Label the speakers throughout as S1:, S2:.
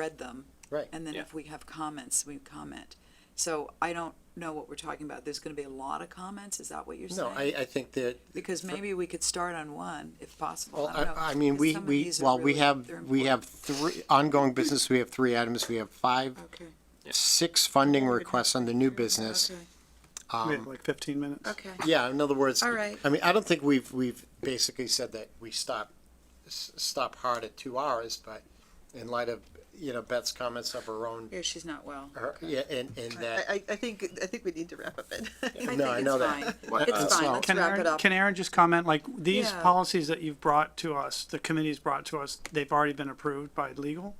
S1: read them.
S2: Right.
S1: And then
S3: Yeah.
S1: if we have comments, we comment. So I don't know what we're talking about. There's gonna be a lot of comments, is that what you're
S2: No,
S1: saying?
S2: I, I think that,
S1: Because maybe we could start on one, if possible.
S2: well,
S1: I don't know.
S2: I, I mean,
S1: 'cause
S2: we,
S1: some of
S2: we,
S1: these are
S2: while we
S1: really-
S2: have,
S1: they're
S2: we have
S1: important.
S2: three, ongoing business, we have three items, we have five,
S1: Okay,
S2: six funding requests on the new business.
S1: okay,
S4: We have like fifteen minutes.
S1: Um, okay.
S2: Yeah, in other words,
S1: All right.
S2: I mean, I don't think we've, we've basically said that we stop, s- stop hard at two hours, but in light of, you know, Beth's comments of her own,
S1: Yeah, she's not well.
S2: her, yeah, and, and that.
S5: I, I I think, I think we need to wrap up it.
S1: I
S2: No,
S1: think
S2: I
S1: it's
S2: know that.
S1: fine.
S3: What, uh,
S1: It's fine,
S2: so-
S1: let's
S4: Can
S1: wrap it
S4: Aaron,
S1: up.
S4: can Aaron just comment, like, these
S1: Yeah.
S4: policies that you've brought to us, the committee's brought to us, they've already been approved by legal?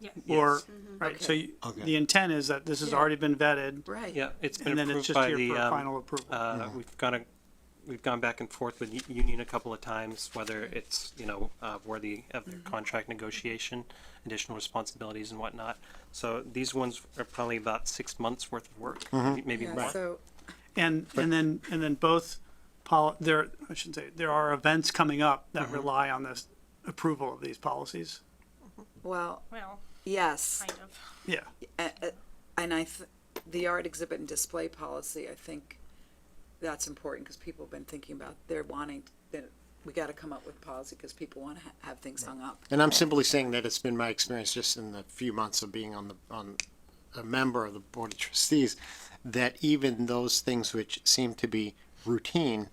S6: Yes.
S4: Or,
S1: Mm-hmm.
S4: right, so you- the intent is that this has already been vetted,
S1: Right.
S7: Yeah, it's
S4: and
S7: been
S4: then it's
S7: approved
S4: just
S7: by
S4: here
S7: the,
S4: for
S7: um,
S4: final approval.
S7: uh, we've gone, a- we've gone back and forth with the union a couple of times, whether it's, you know, uh, worthy of their
S1: Mm-hmm.
S7: contract negotiation, additional responsibilities and whatnot. So these ones are probably about six months worth of work, maybe
S1: Yeah,
S7: more.
S1: so,
S4: And, and then, and then both pol, there, I shouldn't say, there are events coming up
S7: Mm-hmm.
S4: that rely on this approval of these policies.
S1: well,
S6: Well,
S1: yes.
S6: kind of.
S4: Yeah,
S1: A- a- And I, th- the art exhibit and display policy, I think that's important because people have been thinking about, they're wanting, that we got to come up with policy because people want to ha- have things hung up.
S2: And I'm simply saying that it's been my experience just in the few months of being on the, on a member of the Board of Trustees, that even those things which seem to be routine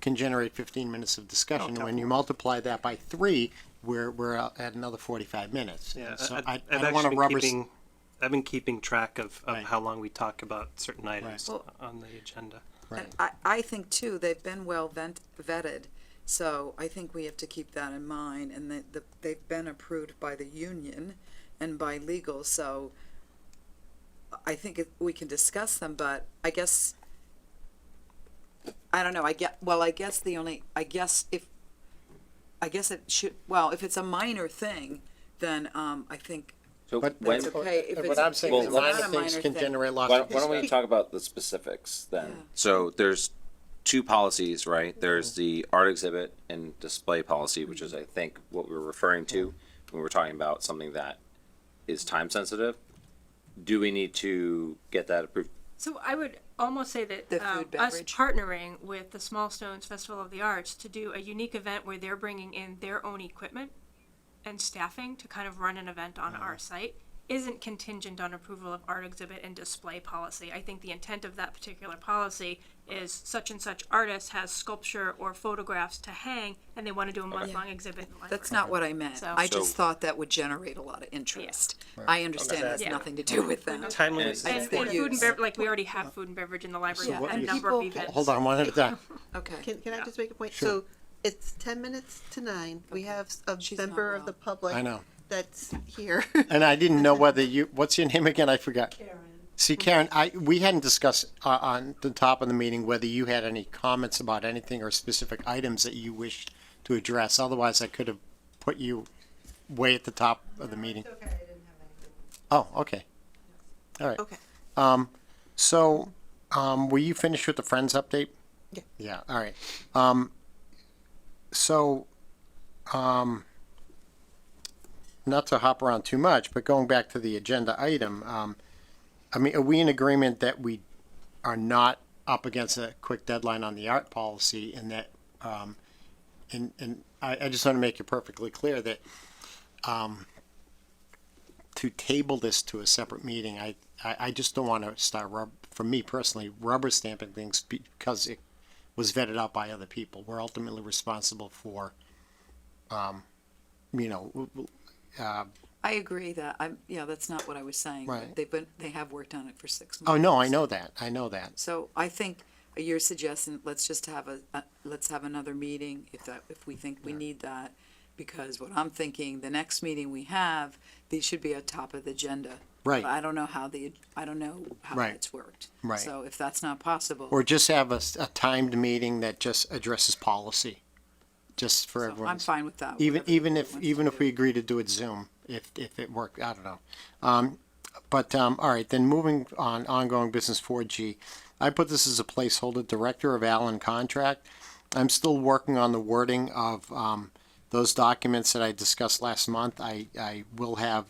S2: can generate fifteen minutes of discussion. When you multiply that by three, we're, we're out at another forty-five minutes.
S7: Yeah,
S2: And So I,
S7: I- I've
S2: I don't
S7: actually
S2: wanna
S7: been
S2: rubber, s-
S7: keeping- I've been keeping track of, of
S2: Right.
S7: how long we talk about certain items
S1: Well-
S7: on the agenda.
S2: right.
S1: And I, I think too, they've been well vent- vetted, so I think we have to keep that in mind, and that, the they've been approved by the union and by legal, so I think it- we can discuss them, but I guess, I don't know, I get, well, I guess the only, I guess if, I guess it should, well, if it's a minor thing, then, um, I think,
S3: So
S2: But
S3: when,
S1: that's
S2: but-
S1: okay if
S2: but
S1: it's-
S2: What I'm saying
S3: if
S2: is
S3: it's not
S2: minor
S1: a
S2: things
S1: minor
S2: can
S1: thing.
S2: generate lots
S3: why,
S2: of
S3: don't, why don't we
S2: discussion.
S3: talk about the specifics then?
S1: Yeah. Mm-hmm.
S3: So there's two policies, right? There's the art exhibit and display policy, which is I think what we were referring to when we were talking about something that is time sensitive. Do we need to get that approved?
S6: So I would almost say that
S1: The
S6: um,
S1: food,
S6: us
S1: beverage.
S6: partnering with the Small Stones Festival of the Arts to do a unique event where they're bringing in their own equipment and staffing to kind of run an event on
S1: Uh-huh.
S6: our site isn't contingent on approval of art exhibit and display policy. I think the intent of that particular policy is such and such artist has sculpture or photographs to hang and they want to do a month-long exhibit. in the
S1: that's
S6: library.
S1: not what I meant.
S6: So-
S1: I just
S3: So-
S1: thought that would generate a lot of interest. I understand it has
S6: Yeah.
S1: nothing to do with that.
S7: Timely,
S3: Yes.
S6: And,
S1: It's their
S6: and food and
S1: use.
S6: beverage, like we already have food and beverage in the library.
S1: Yeah,
S6: we have a
S1: and
S6: number of
S1: people-
S6: events.
S2: Hold on one at a time.
S1: Okay.
S5: Can, can I just make a point? So it's ten minutes to nine. We have a
S1: She's not
S5: member of the
S1: well.
S5: public.
S2: I know.
S5: That's here.
S2: And I didn't know whether you, what's your name again? I forgot. See, Karen, I, we hadn't discussed uh, on the top of the meeting whether you had any comments about anything or specific items that you wished to address. Otherwise, I could have put you way at the top of the meeting. Oh, okay. All right. Um,
S5: Okay.
S2: So, um, were you finished with the Friends update?
S5: Yeah.
S2: Yeah, all right. Um, so, um, not to hop around too much, but going back to the agenda item, um, I mean, are we in agreement that we are not up against a quick deadline on the art policy and that, um, and, and I, I just want to make it perfectly clear that, um, to table this to a separate meeting, I, I, I just don't want to start rub, for me personally, rubber stamping things because it was vetted out by other people. We're ultimately responsible for, um, you know, w- w- Uh,
S1: I agree that I'm, yeah, that's not what I was saying. but
S2: Right.
S1: They've been, they have worked on it for six months.
S2: oh, no, I know that. I know that.
S1: So I think you're suggesting, let's just have a, a- let's have another meeting if that, if we think we need that. Because what I'm thinking, the next meeting we have, these should be on top of the agenda.
S2: Right.
S1: But I don't know how the, I don't know how
S2: Right.
S1: it's worked.
S2: Right.
S1: So if that's not possible.
S2: Or just have a, s- a timed meeting that just addresses policy, just for
S1: so
S2: everyone.
S1: I'm fine with that.
S2: even
S1: whatever
S2: even
S1: the
S2: if
S1: board wants
S2: even
S1: to
S2: if
S1: do.
S2: we agree to do it Zoom, if if it worked, I don't know. Um, but um, all right, then moving on, ongoing business four G. I put this as a placeholder. Director of Allen contract. I'm still working on the wording of um, those documents that I discussed last month. I I will have